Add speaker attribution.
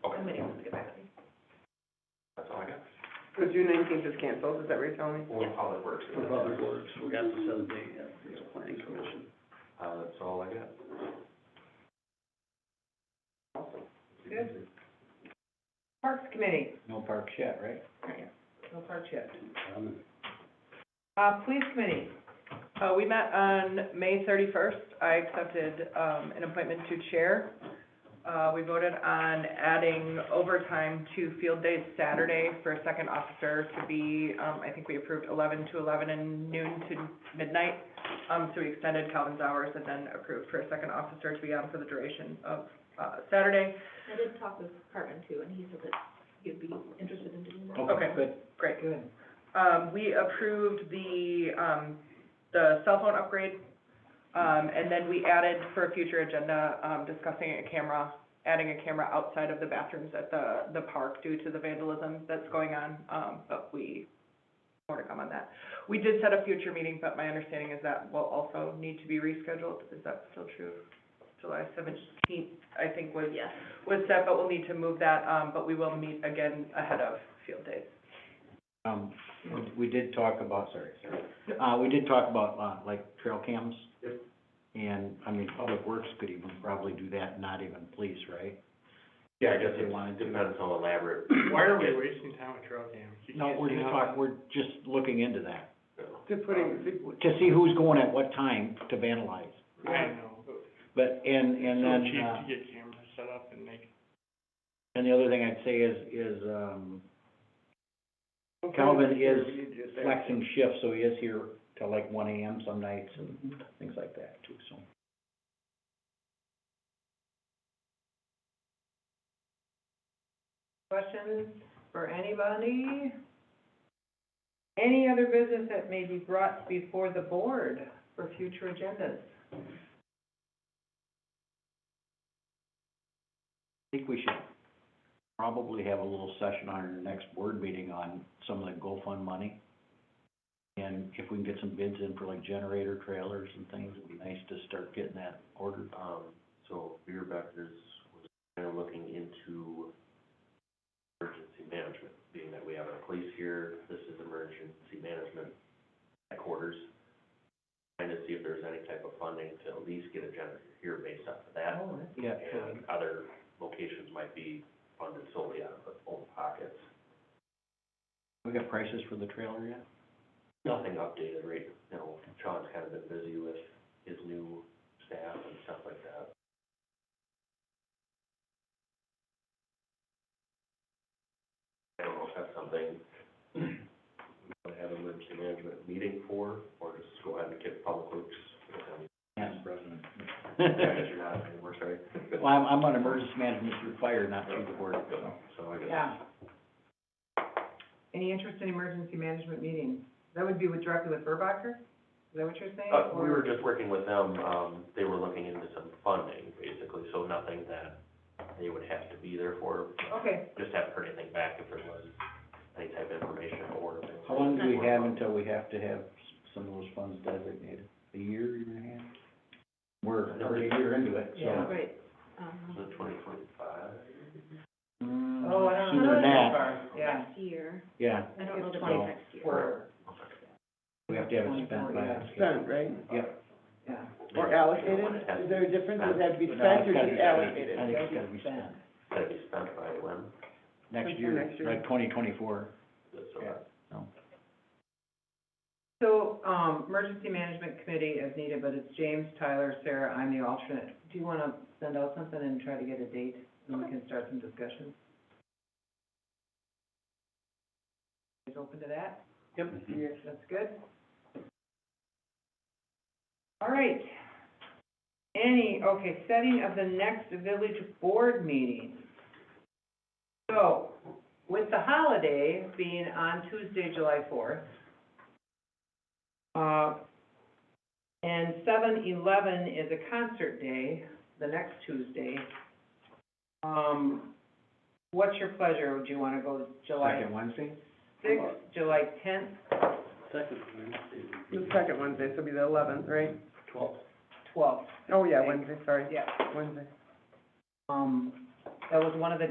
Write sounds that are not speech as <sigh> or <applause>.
Speaker 1: committee wants to get back to me.
Speaker 2: That's all I got.
Speaker 3: So June nineteenth is canceled, is that what you're telling me?
Speaker 2: Or Public Works.
Speaker 4: For public works, we got the seventeenth, yeah, it's planning commission.
Speaker 2: Uh, that's all I got.
Speaker 1: Good. Parks Committee,
Speaker 4: No parks yet, right? Um,
Speaker 1: no park yet. Uh, Police Committee,
Speaker 3: Uh, we met on May thirty-first, I accepted, um, an appointment to chair. Uh, we voted on adding overtime to field days Saturday for a second officer to be, um, I think we approved eleven to eleven and noon to midnight. Um, so we extended Calvin's hours and then approved for a second officer to be on for the duration of, uh, Saturday.
Speaker 1: I did talk with Cartman too, and he said that he'd be interested in doing that.
Speaker 3: Okay.
Speaker 4: Good.
Speaker 3: Great.
Speaker 4: Good.
Speaker 3: Um, we approved the, um, the cell phone upgrade, um, and then we added for a future agenda, um, discussing a camera, adding a camera outside of the bathrooms at the, the park due to the vandalism that's going on, um, but we, more to come on that. We did set a future meeting, but my understanding is that will also need to be rescheduled, is that still true? July seventeenth, I think was,
Speaker 1: Yes.
Speaker 3: was set, but we'll need to move that, um, but we will meet again ahead of field days.
Speaker 5: Um, we- we did talk about, sorry, sorry, uh, we did talk about, uh, like trail cams.
Speaker 2: Yep.
Speaker 5: And, I mean, Public Works could even probably do that, not even police, right?
Speaker 2: Yeah, I guess it wanted, depends how elaborate.
Speaker 6: Why are we wasting time with trail cams? You
Speaker 5: No,
Speaker 6: can't
Speaker 5: we're
Speaker 6: see
Speaker 5: just
Speaker 6: how-
Speaker 5: talking, we're just looking into that,
Speaker 3: To putting,
Speaker 5: to see who's going at what time to vandalize.
Speaker 6: I know, but
Speaker 5: But, and,
Speaker 6: it's
Speaker 5: and
Speaker 6: so
Speaker 5: then, uh,
Speaker 6: cheap to get cameras set up and make.
Speaker 5: and the other thing I'd say is, is, um, Calvin is flexing shifts, so he is here till like one AM some nights
Speaker 1: Mm-hmm.
Speaker 5: and things like that too, so.
Speaker 1: Questions for anybody? Any other business that may be brought before the board for future agendas?
Speaker 5: I think we should probably have a little session on our next board meeting on some of the GoFund money. And if we can get some bids in for like generator trailers and things, it'd be nice to start getting that ordered.
Speaker 2: Um, so Beer Becker's was kind of looking into emergency management, being that we have our police here, this is emergency management headquarters. Trying to see if there's any type of funding to at least get a generator here based off of that.
Speaker 5: Yeah.
Speaker 2: And other locations might be funded solely out of own pockets.
Speaker 5: We got prices for the trailer yet?
Speaker 2: Nothing updated, right, you know, Sean's kind of been busy with his new staff and stuff like that. I don't know if that's something we have an emergency management meeting for, or just go ahead and get public works.
Speaker 5: Yes, President.
Speaker 2: Yeah, guess you're not anymore, sorry.
Speaker 5: <laughs> Well, I'm, I'm on emergency management through fire, not through the board, so.
Speaker 2: So I guess.
Speaker 1: Yeah. Any interest in emergency management meetings? That would be with, directly with Verbacher? Is that what you're saying?
Speaker 2: Uh, we
Speaker 1: Or-
Speaker 2: were just working with them, um, they were looking into some funding, basically, so nothing that they would have to be there for,
Speaker 1: Okay,
Speaker 2: just haven't heard anything back if there was any type of information or.
Speaker 5: How long do we have until we have to have s- some of those funds designated? A year, year and a half? We're, already a year into it, so.
Speaker 2: Yeah.
Speaker 1: great. Um,
Speaker 2: The twenty twenty-five?
Speaker 5: Mm,
Speaker 1: Oh, I don't know.
Speaker 5: Sooner than that.
Speaker 1: Yeah.
Speaker 5: Yeah,
Speaker 1: I don't know the
Speaker 5: So-
Speaker 1: next year.
Speaker 5: we have to have it spent by.
Speaker 3: Spent, right?
Speaker 5: Yep.
Speaker 1: Yeah.
Speaker 3: Or allocated? Is there a difference? Does it have to be spent or just allocated?
Speaker 5: I think it's gotta be spent.
Speaker 2: Gotta be spent by when,
Speaker 5: Next
Speaker 3: Sometime
Speaker 5: year,
Speaker 3: next year.
Speaker 5: like twenty twenty-four.
Speaker 2: so
Speaker 5: Yeah.
Speaker 2: that's
Speaker 1: So, um, emergency management committee as needed, but it's James, Tyler, Sarah, I'm the alternate. Do you wanna send out something and try to get a date, and we can start some discussions? Is open to that?
Speaker 3: Yep.
Speaker 1: Yes, that's good. All right. Any, okay, setting of the next village board meeting. So, with the holiday being on Tuesday, July fourth, uh, and seven eleven is a concert day, the next Tuesday. Um, what's your pleasure? Would you wanna go July
Speaker 5: Second Wednesday?
Speaker 1: sixth, July tenth,
Speaker 4: Second Wednesday,
Speaker 3: The second Wednesday, so it'll be the eleventh, right?
Speaker 4: twelfth.
Speaker 1: twelfth?
Speaker 3: Oh, yeah, Wednesday, sorry,
Speaker 1: Yeah,
Speaker 3: Wednesday.
Speaker 1: um, that was one of the